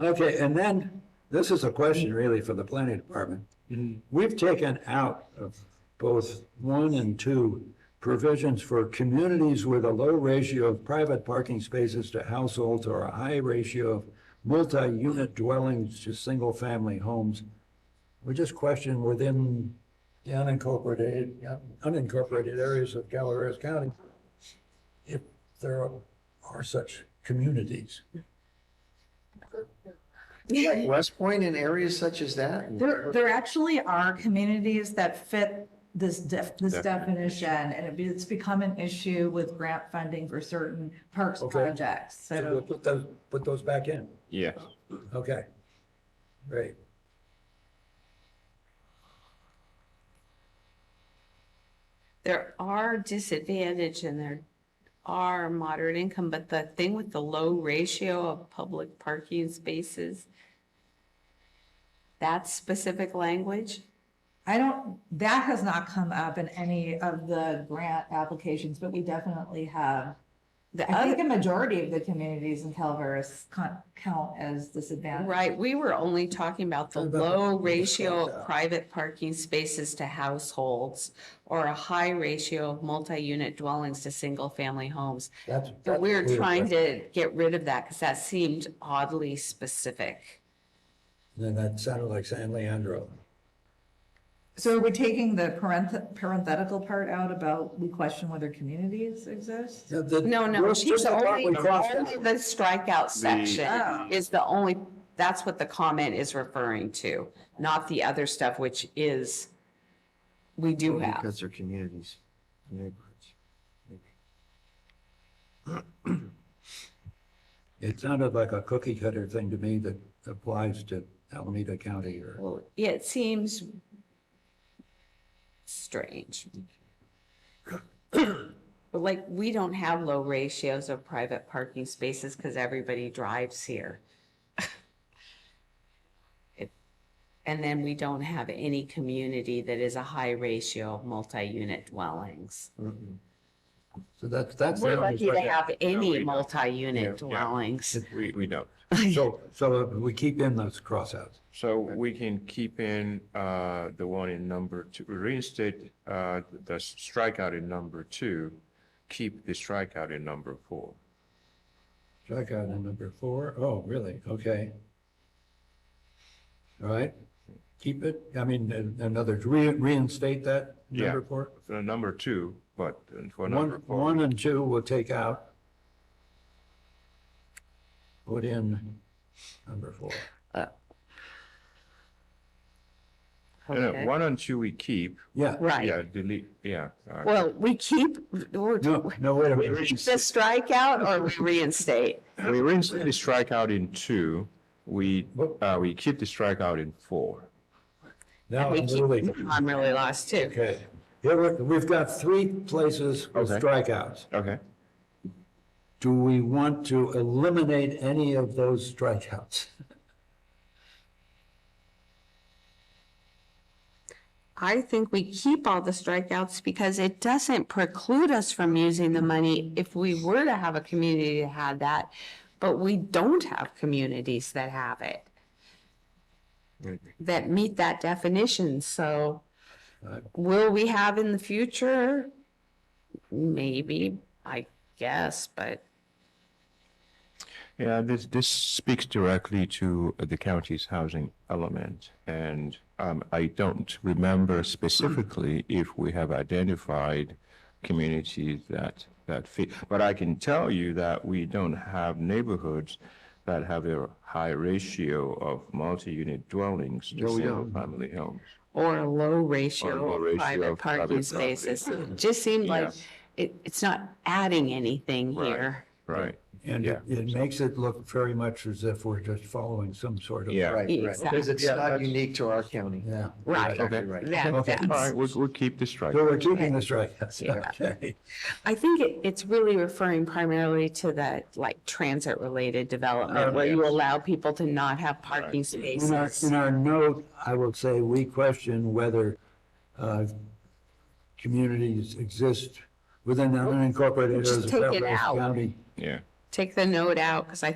Okay, and then, this is a question really for the planning department. We've taken out of both one and two provisions for communities with a low ratio of private parking spaces to households or a high ratio of multi-unit dwellings to single-family homes. We just question within the unincorporated, unincorporated areas of Calaveras County if there are such communities. Like West Point and areas such as that? There, there actually are communities that fit this def, this definition, and it be- it's become an issue with grant funding for certain parks Okay. projects, So um, we'll so. put those, put those back in. Yeah. Okay. Great. There are disadvantage and there are moderate income, but the thing with the low ratio of public parking spaces, that specific language, I don't, that has not come up in any of the grant applications, but we definitely have. the I think other, a majority of the communities in Calveras con- count as disadvantaged. right, we were only talking about the Talking about the- low ratio Yeah. of private parking spaces to households or a high ratio of multi-unit dwellings to single-family homes. That's. But we were that's clear. trying to get rid of that because that seemed oddly specific. Then that sounded like San Leandro. So are we taking the parenth- parenthetical part out about we question whether communities exist? Yeah, the- No, no, we're it's still the the part only, we only crossed out. the strikeout Oh. section is the only, that's what the comment is referring to, not the other stuff, which is, we do have. Because they're communities, neighborhoods. It sounded like a cookie cutter thing to me that applies to Alameda County or, Well, yeah, It seems strange. But like, we don't have low ratios of private parking spaces because everybody drives here. It- And then we don't have any community that is a high ratio of multi-unit dwellings. Mm-mm. so that's, that's. the We're only lucky to question. have we any don't. multi-unit Yeah, yeah. dwellings. We, we don't. So, so we keep in those crossouts. So we can keep in uh, the one in number two, reinstate uh, the strikeout in number two, keep the strikeout in number four. Check out in number four. Oh, really? Okay. All right. Keep it. I mean, in in other words, re- reinstate that Yeah. number four. For Uh, number two, but uh, for number One, four, one and two will take out. Put in number four. no, Okay. no, one and two we keep, Yeah, Right. yeah, delete, yeah. uh, Well, we keep, we're, no, no, wait a minute. the strikeout or we reinstate? We reinstate the strikeout in two, we, What- uh, we keep the strikeout in four. Now We I'm keep- really, I'm really lost too. okay. Here, we- we've got three places with Okay. strikeouts. Okay. Do we want to eliminate any of those strikeouts? I think we keep all the strikeouts because it doesn't preclude us from using the money if we were to have a community that had that, but we don't have communities that have it, Mm-hmm. that meet that definition, so Right. will we have in the future? Maybe, I guess, but Yeah, this, this speaks directly to the county's housing element. And um, I don't remember specifically if we have identified communities that, that fit. But I can tell you that we don't have neighborhoods that have a high ratio of multi-unit dwellings to No, we don't. single-family homes. or a Or low a low ratio of ratio private of private parking property. spaces. It Just seemed like it, it's not adding anything Right. here. Right. And it, Yeah. it makes it look very much as if we're just following some sort of. Yeah. Right, right. Because it's Yeah, not that's- unique to our county. Yeah. Right. Exactly Okay. right. That- Okay. All that's- right, we'll, we'll keep this strike. So we're keeping the strikeouts, Yeah. okay. I think it, it's really referring primarily to the, like, transit-related Oh, development, where you allow people to not have parking In our, spaces. in our note, I will say we question whether uh, communities exist within the unincorporated areas Just of take it Calaveras out. County. Yeah. Take the note out, because I